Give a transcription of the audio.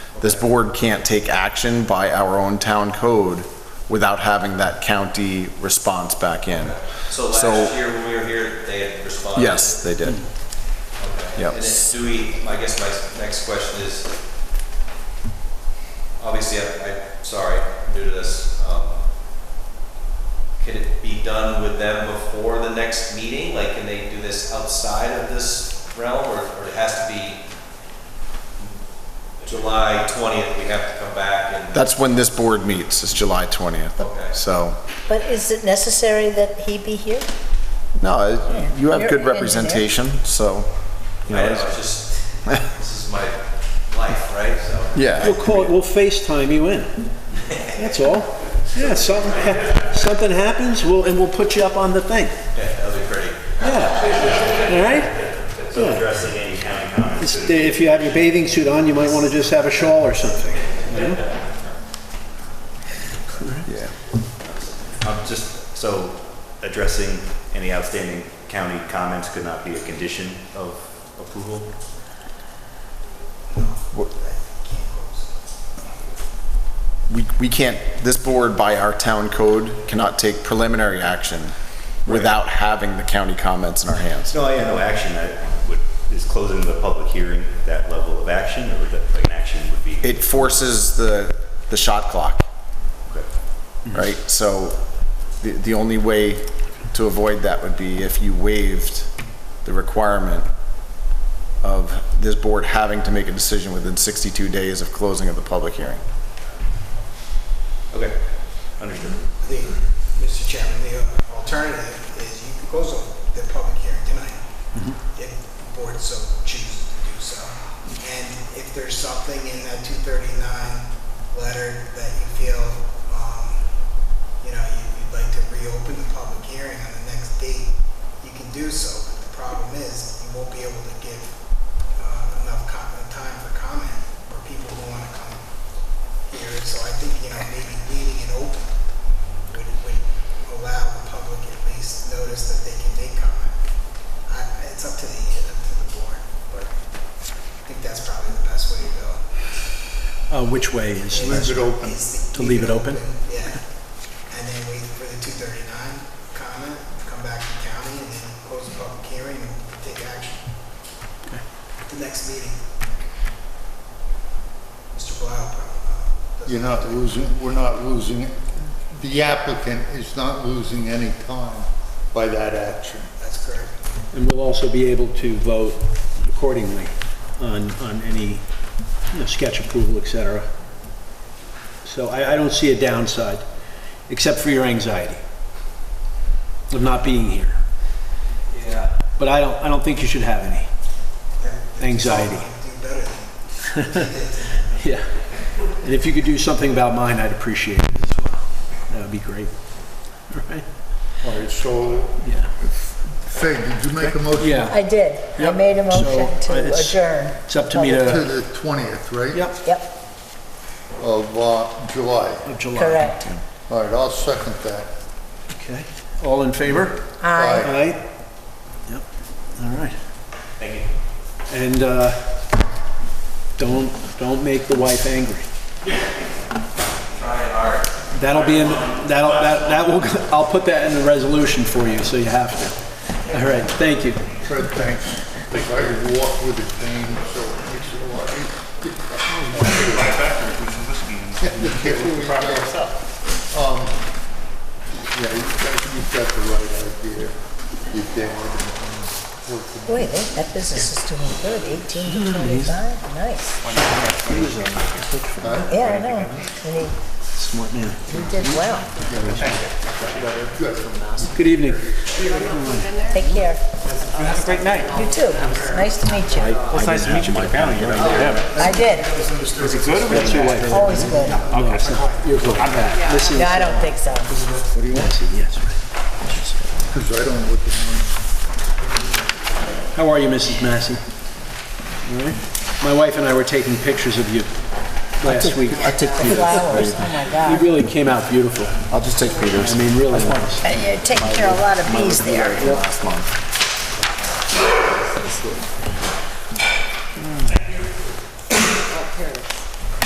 This board can't take action by our own town code without having that county response back in. So So- last year when we were here, they had responded? Yes, they did. Okay. Yep. And then do we, I guess my next question is, obviously, I, I'm sorry, I'm new to this. um, Can it be done with them before the next meeting? Like, can they do this outside of this realm, or, or it has to be July twentieth, we have to come back and? That's when this board meets, is July 20th. Okay. So, But is it necessary that he be here? no, it- you have You're good in there. representation, so, you I know, know, it's- it's just, this is my life, right, so. yeah. We'll call it, we'll FaceTime you in. That's all. Yeah, something, hap- something happens, we'll, and we'll put you up on the thing. Yeah, that would be pretty. Yeah. All right? So addressing any county comments. It's- If you have your bathing suit on, you might want to just have a shawl or something. Yeah. Um, just, so addressing any outstanding county comments could not be a condition of approval? we, we can't, this board by our town code cannot take preliminary action without having the county comments in our hands. No, I have no action that would, is closing the public hearing, that level of action, or that, like, an action would be? It forces the, the shot clock, Okay. right? So the, the only way to avoid that would be if you waived the requirement of this board having to make a decision within 62 days of closing of the public hearing. Okay, understood. The, Mr. Chairman, the uh, alternative is you can close the public hearing tonight, if the board so chooses to do so. And if there's something in that 239 letter that you feel, um, you know, you- you'd like to reopen the public hearing on the next date, you can do so, but the problem is, you won't be able to give uh, enough co- time for comment for people who want to come here, so I think, you know, maybe leaving it open would, would allow the public at least notice that they can make comment. I, I- it's up to the, up to the board, but I think that's probably the best way to go. Uh, which way is? Is To leave it open? Yeah, and then wait for the two thirty-nine comment, come back to county, and then close the public hearing and take action. The next meeting. Mr. Blau, uh, doesn't- You're not losing, we're not losing, the applicant is not losing any time by that action. that's correct. And we'll also be able to vote accordingly on, on any, you know, sketch approval, et cetera. So I, I don't see a downside, except for your anxiety of not being here. Yeah. But I don't, I don't think you should have any. Anxiety. Do better than Yeah. And if you could do something about mine, I'd appreciate it as well. That would be great. All right? All right, so, Yeah. Fig, did you make a motion? Yeah. I did. I Yep. made a motion So, to it's- adjourn. It's up to me To to, the 20th, right? yep, Yep, Of uh, July. of July. correct. All right, I'll second that. Okay. All in favor? Aye. Aye. Aye. Yep. All right. Thank you. And uh, don't, don't make the wife angry. Try hard. That'll be in, that'll, that that will, I'll put that in the resolution for you, so you have to. All right, thank you. Fred, thanks. I walk with a cane, so it makes it a lot easier. Um, Yeah, you got- you've got the right idea. You did. and worked Boy, that that business is doing good, 18 to Mm-hmm. 25, nice. Yeah, I know. And he- Smart man. he did well. Good. Good evening. Take care. Have a great night. You too. Nice to meet you. Well, it's nice to meet you, Mike Brown. You already did. I did, Is it good or That's your wife. always good. No, Okay, so You're good. I'm back. Listen, I don't think so. what do you want to see? Yes, right. Because I don't know what the How are you, Mrs. Massey? All right. My wife and I were taking pictures of you last week. I took Flowers, oh my You God. really came out beautiful. I'll just take Peter's. I mean, really nice. And You're taking care of a lot of bees there. Last month.